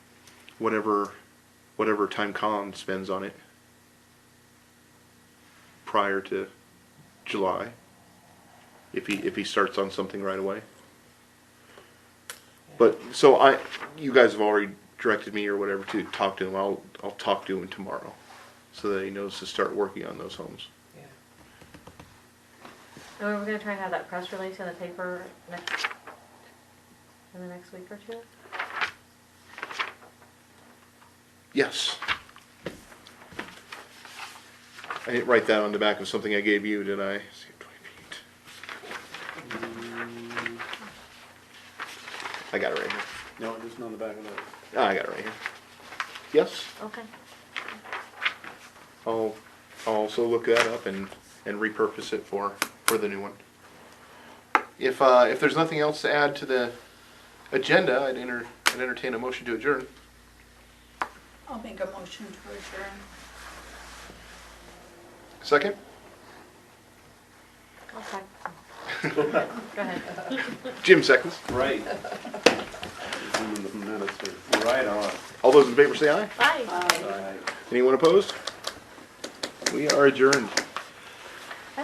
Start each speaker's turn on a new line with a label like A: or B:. A: whatever whatever time Colin spends on it prior to July. If he if he starts on something right away. But so I you guys have already directed me or whatever to talk to him. I'll I'll talk to him tomorrow so that he knows to start working on those homes.
B: Yeah.
C: And we're gonna try and have that press release in the paper next, in the next week or two?
A: Yes. I didn't write that on the back of something I gave you, did I? See, 20 feet. I got it right here.
D: No, it isn't on the back of that.
A: Ah, I got it right here. Yes,
C: Okay.
A: I'll, I'll also look that up and, and repurpose it for, for the new one. If, uh, if there's nothing else to add to the agenda, I'd enter, I'd entertain a motion to adjourn.
E: I'll make a motion to adjourn.
A: Second?
C: Okay. Go ahead.
A: Jim seconds.
D: Right. It's in the minutes here. Right on.
A: All those in favor say aye.
C: Bye.
E: Aye.
D: Right.
A: Anyone opposed? We are adjourned.